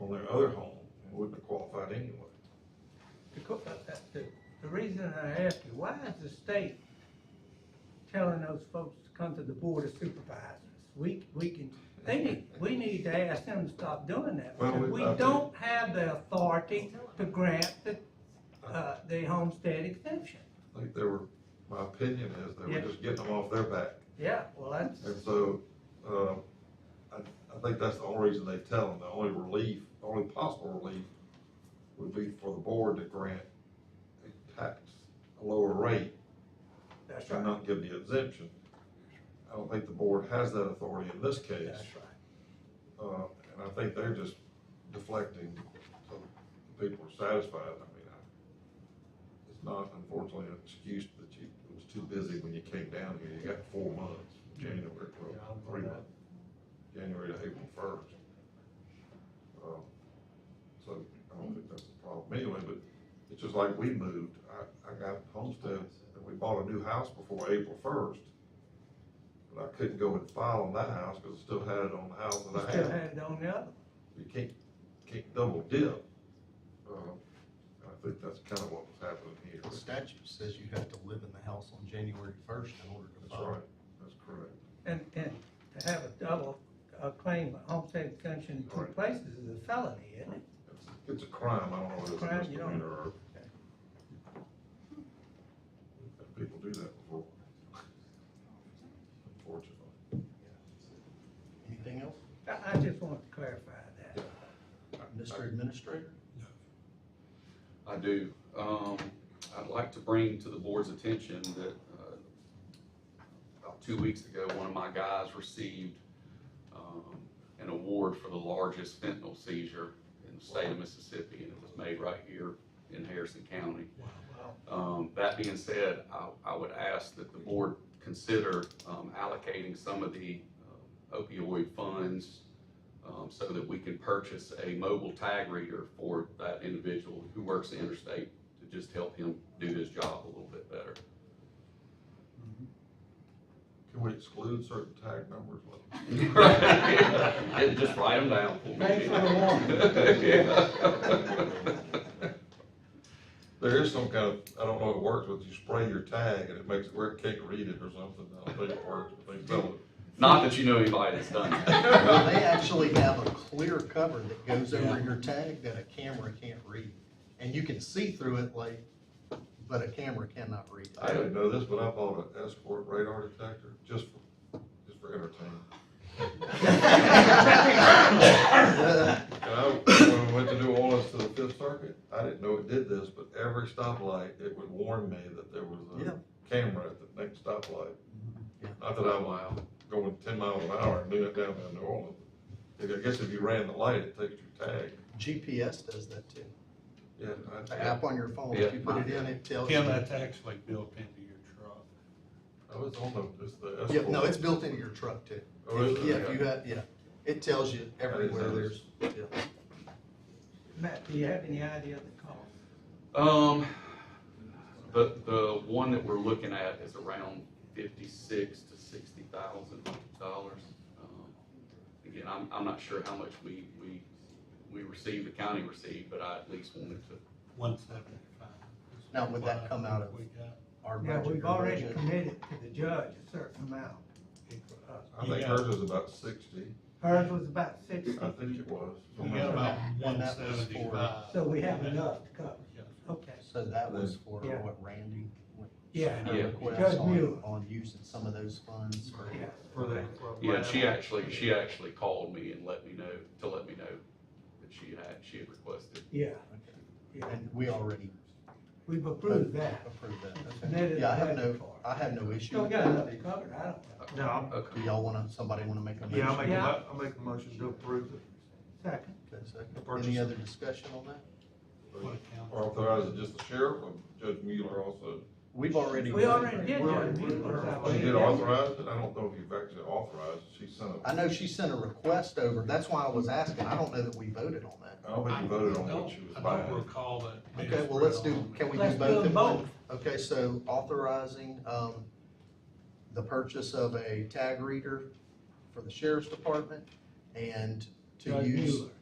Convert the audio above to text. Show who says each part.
Speaker 1: on their other home, it wouldn't have qualified anyway.
Speaker 2: The, co- uh, uh, the, the reason I ask you, why is the state telling those folks to come to the board of supervisors? We, we can, they need, we need to ask them to stop doing that,
Speaker 1: Well,
Speaker 2: because
Speaker 1: we-
Speaker 2: we
Speaker 1: I think-
Speaker 2: don't have the authority to grant the, uh, the homestead exemption.
Speaker 1: I think they were, my opinion is they were
Speaker 2: Yeah.
Speaker 1: just getting them off their back.
Speaker 2: Yeah, well, that's,
Speaker 1: And so, uh, I, I think that's the only reason they tell them, the only relief, only possible relief would be for the board to grant a tax, a lower rate,
Speaker 2: that's
Speaker 1: and
Speaker 2: right,
Speaker 1: not give the exemption. I don't think the board has that authority in this case,
Speaker 2: that's right.
Speaker 1: uh, and I think they're just deflecting, so the people are satisfied, I mean, I, it's not unfortunately an excuse that you, it was too busy when you came down here, you got four months, January, well,
Speaker 3: Yeah, I'll-
Speaker 1: three months. January to April first. Um, So I don't think that's a problem anyway, but it's just like we moved, I, I got homestead, and we bought a new house before April first. But I couldn't go and file on that house, cause I still had it on the house
Speaker 2: We
Speaker 1: that I
Speaker 2: Still
Speaker 1: had,
Speaker 2: had it on the other,
Speaker 1: you can't, can't double dip. Uh, I think that's kinda what was happening here.
Speaker 3: The statute says you have to live in the house on January first in order to
Speaker 1: That's
Speaker 3: file.
Speaker 1: right, that's correct.
Speaker 2: and, and to have a double, uh, claim of homestead exemption in two
Speaker 1: Right.
Speaker 2: places is a felony, isn't it?
Speaker 1: It's- It's a crime, I don't know if it's a
Speaker 2: Crime, you don't-
Speaker 1: misdemeanor or. People do that before. Unfortunately.
Speaker 3: Anything else,
Speaker 2: I, I just want to clarify that.
Speaker 3: Mr. Administrator?
Speaker 4: I do. Um, I'd like to bring to the board's attention that, uh, about two weeks ago, one of my guys received, um, an award for the largest fentanyl seizure in the state of Mississippi, and it was made right here in Harrison County. Um, that being said, I, I would ask that the board consider, um, allocating some of the um, opioid funds, um, so that we can purchase a mobile tag reader for that individual who works the interstate to just help him do his job a little bit better.
Speaker 1: Mm-hmm. Can we exclude certain tag numbers?
Speaker 4: And just write them down for me.
Speaker 2: Thanks for the
Speaker 4: Yeah.
Speaker 1: There is some kind of, I don't know if it works, but you spray your tag and it makes it where it can't read it or something, I don't think it works, but they sell it.
Speaker 4: Not that you know anybody that's done
Speaker 3: Well,
Speaker 4: that.
Speaker 3: they actually have a clear cover that goes over your tag that a camera can't read. And you can see through it like, but a camera cannot read it.
Speaker 1: I didn't know this, but I bought an escort radar detector just for, just for entertainment. And I, when we went to New Orleans to the Fifth Circuit, I didn't know it did this, but every stoplight, it would warn me that there was
Speaker 3: Yeah.
Speaker 1: a camera at the next stoplight.
Speaker 3: Yeah.
Speaker 1: Not that
Speaker 4: Oh,
Speaker 1: I'm
Speaker 4: wow.
Speaker 1: going ten miles an hour and doing it down in New Orleans. I guess if you ran the light, it takes your tag.
Speaker 3: GPS does that too.
Speaker 1: Yeah, I,
Speaker 3: The app on your phone, if you put it in, it tells you.
Speaker 5: Ken, that's actually built into your truck.
Speaker 1: I was on the, just the
Speaker 3: Yeah,
Speaker 1: escort.
Speaker 3: no, it's built into your truck too.
Speaker 1: Oh, is it?
Speaker 3: Yeah, if you have, yeah, it tells you everywhere there's, yeah.
Speaker 2: Matt, do you have any idea of the cost?
Speaker 4: Um, the, the one that we're looking at is around fifty-six to sixty thousand dollars. Um, Again, I'm, I'm not sure how much we, we, we received, the county received, but I at least wanted to
Speaker 5: One seventy-five.
Speaker 3: Now, would that come out of-
Speaker 5: We got,
Speaker 3: our
Speaker 2: Yeah,
Speaker 3: budget.
Speaker 2: we've
Speaker 3: our
Speaker 2: already
Speaker 3: budget.
Speaker 2: committed to the judge a certain amount.
Speaker 1: I think
Speaker 5: Yeah.
Speaker 1: hers was about sixty,
Speaker 2: Hers was about sixty,
Speaker 1: I think it was.
Speaker 5: we got about
Speaker 3: And
Speaker 5: one
Speaker 3: that was for-
Speaker 5: seventy-five.
Speaker 2: so we have enough to cover,
Speaker 5: Yeah.
Speaker 2: okay.
Speaker 3: So that was for
Speaker 2: Yeah.
Speaker 3: what Randy, what
Speaker 2: Yeah,
Speaker 3: her
Speaker 4: Yeah.
Speaker 3: request
Speaker 2: Judge
Speaker 3: on,
Speaker 2: Mueller.
Speaker 3: on using some of those funds for.
Speaker 2: yeah,
Speaker 5: For that.
Speaker 4: Yeah, she actually, she actually called me and let me know, to let me know that she had, she had requested.
Speaker 2: yeah, yeah,
Speaker 3: And we already
Speaker 2: we've approved that.
Speaker 3: approved that.
Speaker 2: Submitted
Speaker 3: okay. Yeah, I have
Speaker 2: the budget
Speaker 3: no,
Speaker 2: for it.
Speaker 3: I have no issue.
Speaker 2: So we
Speaker 3: with
Speaker 2: got
Speaker 3: that.
Speaker 2: enough to cover, it, I don't know.
Speaker 6: No, I'm-
Speaker 4: Okay.
Speaker 3: Do y'all wanna, somebody wanna make a motion?
Speaker 6: yeah, I'll make, a
Speaker 2: Yeah.
Speaker 6: mo- I'll make a motion to approve it.
Speaker 2: Second,
Speaker 3: Okay, second.
Speaker 6: The purchase.
Speaker 3: Any other discussion on that?
Speaker 1: Or authorize it just the sheriff or Judge Mueller also.
Speaker 3: We've already.
Speaker 2: we already did
Speaker 6: We're-
Speaker 2: judge
Speaker 6: we're-
Speaker 2: Mueller. that
Speaker 1: She
Speaker 2: way.
Speaker 1: did authorize it, I don't know if you've actually authorized, it. she sent
Speaker 3: I
Speaker 1: a,
Speaker 3: know she sent a request over, that's why I was asking, I don't know that we voted on that.
Speaker 1: I don't think you voted on what she was
Speaker 5: I don't
Speaker 1: buying.
Speaker 5: recall that. being
Speaker 3: Okay, well, let's
Speaker 5: spread
Speaker 3: do,
Speaker 5: on
Speaker 3: can we do
Speaker 2: Let's do
Speaker 3: both
Speaker 2: them
Speaker 3: at once?
Speaker 2: both.
Speaker 3: Okay, so authorizing, um, the purchase of a tag reader for the sheriff's department and to
Speaker 2: Judge
Speaker 3: use
Speaker 2: Mueller.